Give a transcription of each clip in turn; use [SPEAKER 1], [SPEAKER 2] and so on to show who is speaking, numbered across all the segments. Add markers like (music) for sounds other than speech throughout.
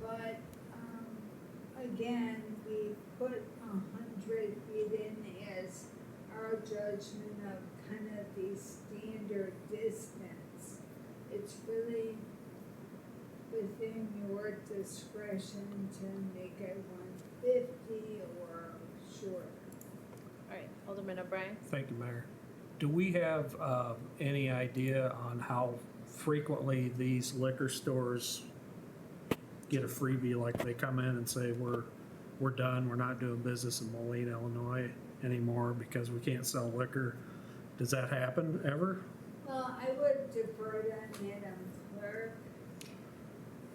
[SPEAKER 1] but, um, again, we put a hundred in as our judgment of kind of the standard distance. It's really within your discretion to make it one fifty or shorter.
[SPEAKER 2] All right, Alderman O'Brien?
[SPEAKER 3] Thank you, Mayor. Do we have uh, any idea on how frequently these liquor stores get a freebie, like they come in and say, we're, we're done, we're not doing business in Moline, Illinois anymore because we can't sell liquor? Does that happen ever?
[SPEAKER 1] Well, I would defer to Madam Clerk.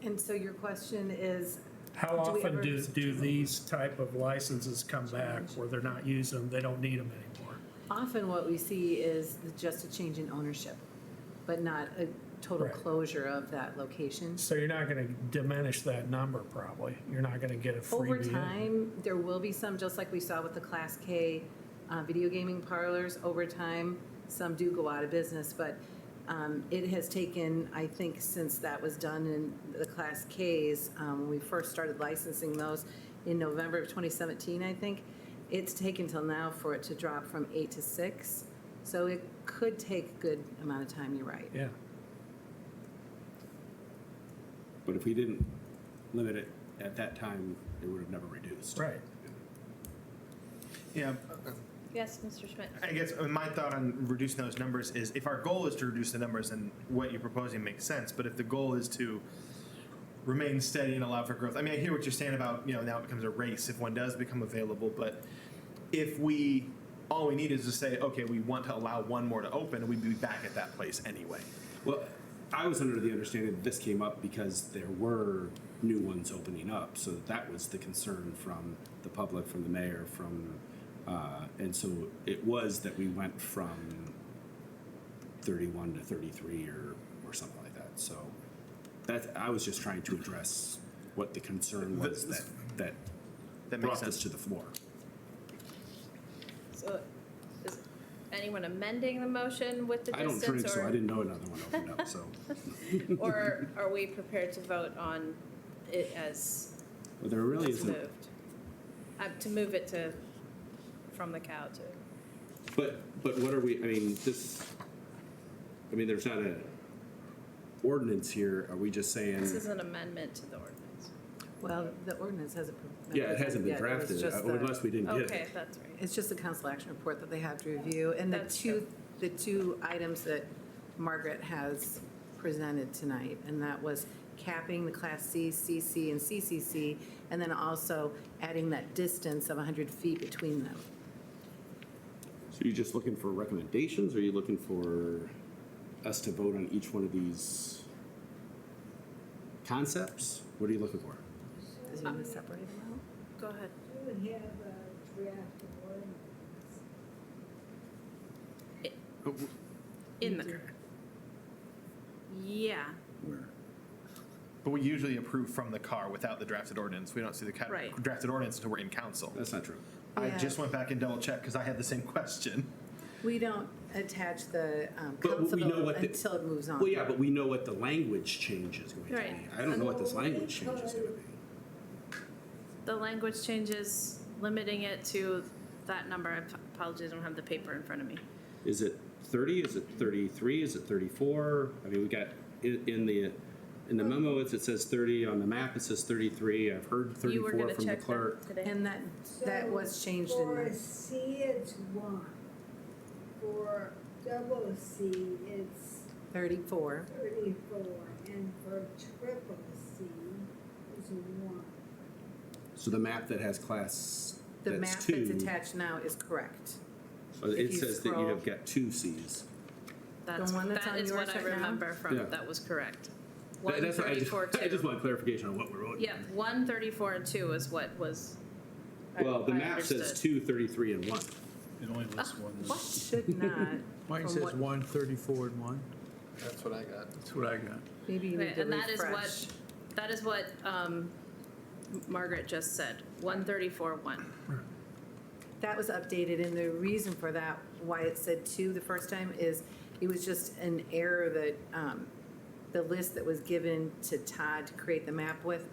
[SPEAKER 4] And so your question is,
[SPEAKER 3] How
[SPEAKER 4] Do we
[SPEAKER 3] often
[SPEAKER 4] ever-
[SPEAKER 3] do, do these type of licenses come back where they're not using them, they don't need them anymore?
[SPEAKER 4] often what we see is the- just a change in ownership, but not a total
[SPEAKER 3] Right.
[SPEAKER 4] closure of that location.
[SPEAKER 3] So you're not gonna diminish that number probably. You're not gonna get a freebie.
[SPEAKER 4] Over
[SPEAKER 3] in.
[SPEAKER 4] time, there will be some, just like we saw with the Class K uh, video gaming parlors, over time, some do go out of business, but um, it has taken, I think, since that was done in the Class Ks, um, when we first started licensing those in November of 2017, I think, it's taken till now for it to drop from eight to six. So it could take a good amount of time, you're right.
[SPEAKER 3] Yeah.
[SPEAKER 5] But if we didn't limit it at that time, it would have never reduced.
[SPEAKER 3] Right.
[SPEAKER 6] Yeah,
[SPEAKER 2] Yes, Mr. Schmidt?
[SPEAKER 6] I guess uh, my thought on reducing those numbers is if our goal is to reduce the numbers, then what you're proposing makes sense. But if the goal is to remain steady and allow for growth, I mean, I hear what you're saying about, you know, now it becomes a race if one does become available. But if we, all we need is to say, okay, we want to allow one more to open and we'd be back at that place anyway.
[SPEAKER 5] Well, I was under the understanding that this came up because there were new ones opening up, so that was the concern from the public, from the mayor, from, uh, and so it was that we went from thirty-one to thirty-three or, or something like that, so that's, I was just trying to address what the concern was that, that
[SPEAKER 6] That makes
[SPEAKER 5] brought this
[SPEAKER 6] sense.
[SPEAKER 5] to the floor.
[SPEAKER 2] So is anyone amending the motion with the
[SPEAKER 5] I don't
[SPEAKER 2] distance?
[SPEAKER 5] drink, so
[SPEAKER 2] or-
[SPEAKER 5] I didn't know another one opened up, so.
[SPEAKER 2] Or are we prepared to vote on it as
[SPEAKER 5] Well, there really
[SPEAKER 2] it's
[SPEAKER 5] isn't.
[SPEAKER 2] moved? Uh, To move it to, from the cow to,
[SPEAKER 5] But, but what are we, I mean, this, I mean, there's not a ordinance here, are we just
[SPEAKER 2] this
[SPEAKER 5] saying?
[SPEAKER 2] is an amendment to the ordinance.
[SPEAKER 4] Well, the ordinance hasn't. been-
[SPEAKER 5] Yeah, it hasn't been
[SPEAKER 4] yet, was
[SPEAKER 5] drafted,
[SPEAKER 4] just
[SPEAKER 5] uh,
[SPEAKER 4] the-
[SPEAKER 5] unless we didn't get
[SPEAKER 2] Okay,
[SPEAKER 5] it.
[SPEAKER 2] that's right.
[SPEAKER 4] It's just the council action report that they have to review, and the
[SPEAKER 2] That's
[SPEAKER 4] two, the two items that Margaret has presented tonight, and that was capping the Class C, CC, and CCC, and then also adding that distance of 100 feet between them.
[SPEAKER 5] So you're just looking for recommendations, or are you looking for us to vote on each one of these concepts? What are you looking for?
[SPEAKER 4] Is it
[SPEAKER 2] Um,
[SPEAKER 4] going to separate them out?
[SPEAKER 2] Go ahead.
[SPEAKER 1] Do we have a draft ordinance?
[SPEAKER 2] In the. Yeah,
[SPEAKER 5] Where?
[SPEAKER 6] But we usually approve from the car without the drafted ordinance. We don't see the ca-
[SPEAKER 2] Right.
[SPEAKER 6] drafted ordinance until we're in council.
[SPEAKER 5] That's not true.
[SPEAKER 6] I
[SPEAKER 4] Yeah.
[SPEAKER 6] just went back and double checked because I had the same question.
[SPEAKER 4] We don't attach the um,
[SPEAKER 5] But we
[SPEAKER 4] council
[SPEAKER 5] know
[SPEAKER 4] vote
[SPEAKER 5] what the-
[SPEAKER 4] until it moves on.
[SPEAKER 5] Well, yeah, but we know what the language change is going to
[SPEAKER 2] Right.
[SPEAKER 5] be. I don't know what this language change is going to be.
[SPEAKER 2] the language changes, limiting it to that number. I apologize, I don't have the paper in front of me.
[SPEAKER 5] Is it thirty? Is it thirty-three? Is it thirty-four? I mean, we got, in, in the, in the memo, it's, it says thirty, on the map, it says thirty-three, I've heard
[SPEAKER 2] You were
[SPEAKER 5] thirty-four
[SPEAKER 2] gonna
[SPEAKER 5] from the
[SPEAKER 2] check
[SPEAKER 5] clerk.
[SPEAKER 2] that today.
[SPEAKER 4] And that, that
[SPEAKER 1] So
[SPEAKER 4] was changed in
[SPEAKER 1] For
[SPEAKER 4] the,
[SPEAKER 1] C, it's one. For double C, it's
[SPEAKER 4] 34.
[SPEAKER 1] thirty-four, and for triple C, it's one.
[SPEAKER 5] So the map that has class,
[SPEAKER 4] The map
[SPEAKER 5] that's
[SPEAKER 4] that's
[SPEAKER 5] two,
[SPEAKER 4] attached now is correct.
[SPEAKER 5] so
[SPEAKER 4] if
[SPEAKER 5] it
[SPEAKER 4] you
[SPEAKER 5] says that you have
[SPEAKER 4] scroll-
[SPEAKER 5] got two Cs.
[SPEAKER 2] That's,
[SPEAKER 4] The one that's
[SPEAKER 2] that
[SPEAKER 4] on
[SPEAKER 2] is
[SPEAKER 4] yours
[SPEAKER 2] what I
[SPEAKER 4] right now?
[SPEAKER 2] remember
[SPEAKER 5] Yeah.
[SPEAKER 2] from, that was correct.
[SPEAKER 5] That-
[SPEAKER 2] One
[SPEAKER 5] That's what I just, (laughs)
[SPEAKER 2] thirty-four,
[SPEAKER 5] I just
[SPEAKER 2] two.
[SPEAKER 5] want clarification on what we're voting.
[SPEAKER 2] Yeah, one thirty-four and two is what was. I-
[SPEAKER 5] Well, the
[SPEAKER 2] I
[SPEAKER 5] map says
[SPEAKER 2] understood.
[SPEAKER 5] two, thirty-three, and one.
[SPEAKER 7] It only lists one.
[SPEAKER 2] What?
[SPEAKER 4] Should not.
[SPEAKER 7] Mine
[SPEAKER 4] Ah. from
[SPEAKER 7] says
[SPEAKER 4] what-
[SPEAKER 7] one, thirty-four, and one.
[SPEAKER 6] That's what I got.
[SPEAKER 7] That's what I got.
[SPEAKER 4] Maybe you need
[SPEAKER 2] Right,
[SPEAKER 4] to
[SPEAKER 2] And that is
[SPEAKER 4] refresh.
[SPEAKER 2] what, that is what um, Margaret just said, one thirty-four, one.
[SPEAKER 4] That was updated, and the reason for that, why it said two the first time, is it was just an error that, um, the list that was given to Todd to create the map with